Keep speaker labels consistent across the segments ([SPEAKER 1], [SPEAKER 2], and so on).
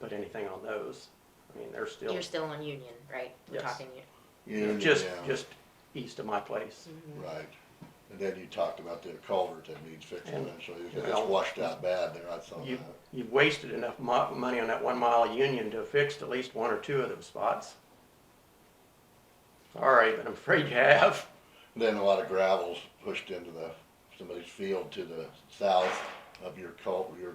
[SPEAKER 1] put anything on those. I mean, they're still
[SPEAKER 2] You're still on Union, right? We're
[SPEAKER 1] Yes.
[SPEAKER 2] talking, Union.
[SPEAKER 1] they're
[SPEAKER 3] Union,
[SPEAKER 1] just,
[SPEAKER 3] yeah,
[SPEAKER 1] just east of my place.
[SPEAKER 3] Right. And then you talked about the culvert that needs fixing
[SPEAKER 1] And-
[SPEAKER 3] eventually,
[SPEAKER 1] well,
[SPEAKER 3] it's washed out bad there, I saw
[SPEAKER 1] You,
[SPEAKER 3] that.
[SPEAKER 1] you've wasted enough mo- money on that one mile of Union to fix at least one or two of them spots. Sorry, but I'm afraid you have.
[SPEAKER 3] Then a lot of gravel's pushed into the, somebody's field to the south of your cul, your,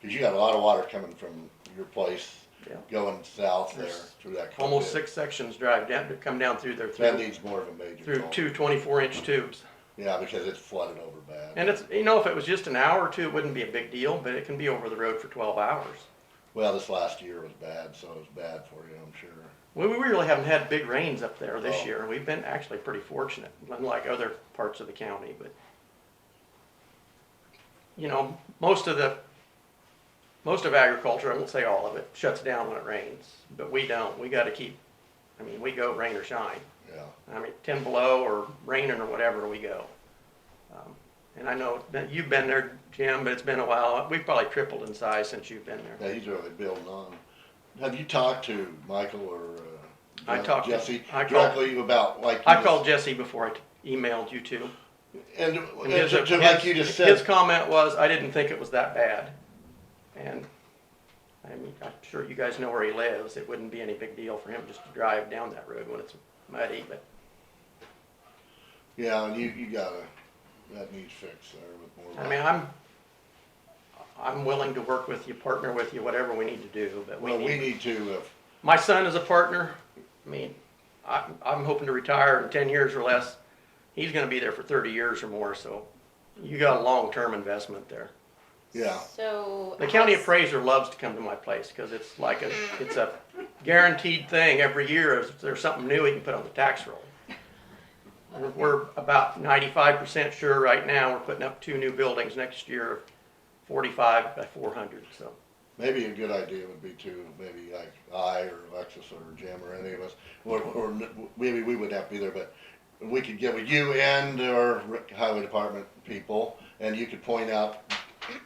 [SPEAKER 3] cause you got a lot of water coming from your place
[SPEAKER 1] Yeah.
[SPEAKER 3] going south there
[SPEAKER 1] There's
[SPEAKER 3] through that.
[SPEAKER 1] Almost
[SPEAKER 3] culvert.
[SPEAKER 1] six sections drive down, to come down through there
[SPEAKER 3] That
[SPEAKER 1] through,
[SPEAKER 3] needs more of a major.
[SPEAKER 1] through
[SPEAKER 3] culvert.
[SPEAKER 1] two twenty-four inch tubes.
[SPEAKER 3] Yeah, because it's flooded over bad.
[SPEAKER 1] And it's, you know, if it was just an hour or two, it wouldn't be a big deal, but it can be over the road for twelve hours.
[SPEAKER 3] Well, this last year was bad, so it was bad for you, I'm sure.
[SPEAKER 1] We, we really haven't had big rains up there this
[SPEAKER 3] Oh.
[SPEAKER 1] year. We've been actually pretty fortunate, unlike other parts of the county, but. You know, most of the, most of agriculture, I won't say all of it, shuts down when it rains, but we don't. We gotta keep, I mean, we go rain or shine.
[SPEAKER 3] Yeah,
[SPEAKER 1] I mean, ten below or raining or whatever, we go. Um, And I know that you've been there, Jim, but it's been a while. We've probably tripled in size since you've been there.
[SPEAKER 3] yeah, he's really building on. Have you talked to Michael or? uh,
[SPEAKER 1] I
[SPEAKER 3] Je-
[SPEAKER 1] talked to-
[SPEAKER 3] Jesse
[SPEAKER 1] I called-
[SPEAKER 3] directly about like. you
[SPEAKER 1] I
[SPEAKER 3] just-
[SPEAKER 1] called Jesse before I t- emailed you two.
[SPEAKER 3] And,
[SPEAKER 1] And
[SPEAKER 3] and
[SPEAKER 1] his-
[SPEAKER 3] to- to like you just
[SPEAKER 1] his- His
[SPEAKER 3] said,
[SPEAKER 1] comment was, I didn't think it was that bad. And, I mean, I'm sure you guys know where he lives. It wouldn't be any big deal for him just to drive down that road when it's muddy, but
[SPEAKER 3] yeah, and you, you gotta, that needs fixed there with more.
[SPEAKER 1] I mean, I'm, I'm willing to work with you, partner with you, whatever we need to do, but we
[SPEAKER 3] Well, we
[SPEAKER 1] need,
[SPEAKER 3] need to, if,
[SPEAKER 1] my son is a partner. I mean, I'm, I'm hoping to retire in ten years or less. He's gonna be there for thirty years or more, so you got a long-term investment there.
[SPEAKER 3] yeah,
[SPEAKER 2] So. uh,
[SPEAKER 1] The county
[SPEAKER 2] as-
[SPEAKER 1] appraiser loves to come to my place because it's like a,
[SPEAKER 2] Mm.
[SPEAKER 1] it's a guaranteed thing every year. If there's something new, he can put on the tax roll. We're, we're about ninety-five percent sure right now. We're putting up two new buildings next year, forty-five by four hundred, so.
[SPEAKER 3] maybe a good idea would be to, maybe like I or Alexis or Jim or any of us, or, or n- maybe we wouldn't have to be there, but we could get with you and our highway department people, and you could point out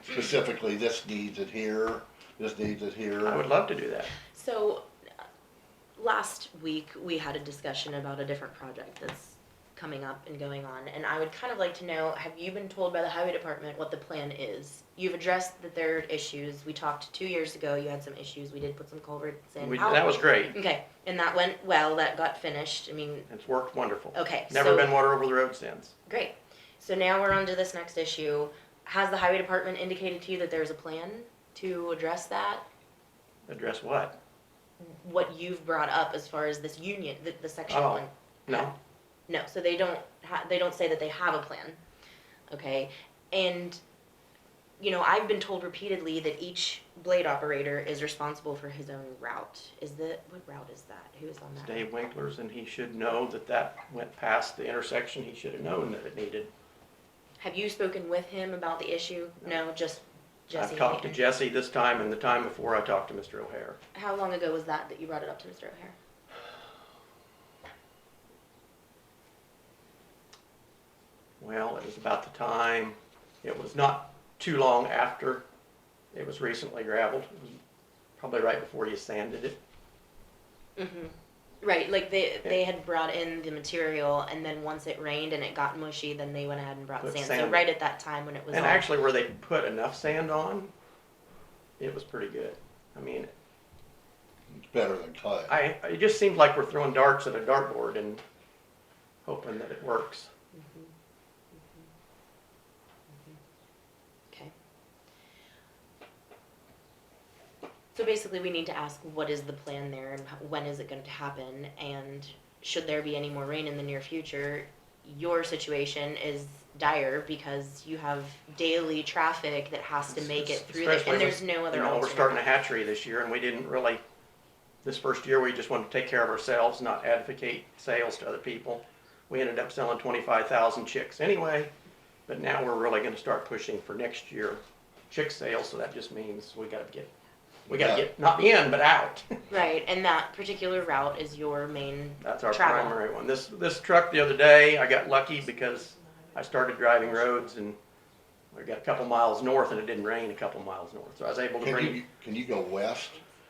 [SPEAKER 3] specifically, this needs it here, this needs it here.
[SPEAKER 1] I would love to do that.
[SPEAKER 2] So, uh, last week, we had a discussion about a different project that's coming up and going on, and I would kind of like to know, have you been told by the highway department what the plan is? You've addressed that there are issues, we talked two years ago, you had some issues, we did put some culverts in.
[SPEAKER 1] We,
[SPEAKER 2] How-
[SPEAKER 1] that was great.
[SPEAKER 2] Okay, and that went well, that got finished, I mean,
[SPEAKER 1] It's worked wonderful.
[SPEAKER 2] okay, so.
[SPEAKER 1] Never been water over the road since.
[SPEAKER 2] Great. So now we're on to this next issue. Has the highway department indicated to you that there's a plan to address that?
[SPEAKER 1] Address what?
[SPEAKER 2] What you've brought up as far as this union, the, the section
[SPEAKER 1] Oh.
[SPEAKER 2] one?
[SPEAKER 1] No?
[SPEAKER 2] No, so they don't ha- they don't say that they have a plan. Okay? And you know, I've been told repeatedly that each blade operator is responsible for his own route. Is the what route is that? Who is on
[SPEAKER 1] It's
[SPEAKER 2] that?
[SPEAKER 1] Dave Winkler's and he should know that that went past the intersection. He should have known that it needed
[SPEAKER 2] Have you spoken with him about the issue? No, just Jesse.
[SPEAKER 1] I've talked to
[SPEAKER 2] Hayner.
[SPEAKER 1] Jesse this time and the time before I talked to Mr. O'Hare.
[SPEAKER 2] How long ago was that that you brought it up to Mr. O'Hare?
[SPEAKER 1] Well, it was about the time, it was not too long after it was recently gravelled. It was Probably right before you sanded it.
[SPEAKER 2] hmm Right, like they they had brought in the material, and then once it rained and it got mushy, then they went ahead and brought
[SPEAKER 1] Put
[SPEAKER 2] sand. So
[SPEAKER 1] sand.
[SPEAKER 2] right at that time when it was
[SPEAKER 1] And
[SPEAKER 2] all-
[SPEAKER 1] actually where they put enough sand on, it was pretty good. I mean,
[SPEAKER 3] It's better than clay.
[SPEAKER 1] I, it just seems like we're throwing darts at a dartboard and hoping that it works.
[SPEAKER 2] okay. So basically, we need to ask what is the plan there, and how- when is it going to happen, and should there be any more rain in the near future, your situation is dire because you have daily traffic that has to make it through, the,
[SPEAKER 1] Especially
[SPEAKER 2] and
[SPEAKER 1] with-
[SPEAKER 2] there's no other.
[SPEAKER 1] You know, we're
[SPEAKER 2] alternative.
[SPEAKER 1] starting a hatchery this year and we didn't really, this first year, we just wanted to take care of ourselves, not advocate sales to other people. We ended up selling twenty-five thousand chicks anyway, but now we're really gonna start pushing for next year chick sales, so that just means we gotta get, we gotta
[SPEAKER 3] Yeah.
[SPEAKER 1] get, not in, but out.
[SPEAKER 2] Right, and that particular route is your main.
[SPEAKER 1] That's our
[SPEAKER 2] Travel.
[SPEAKER 1] primary one. This, this truck the other day, I got lucky because I started driving roads and I got a couple miles north and it didn't rain a couple miles north, so I was able to
[SPEAKER 3] Can
[SPEAKER 1] bring.
[SPEAKER 3] you, can you go west?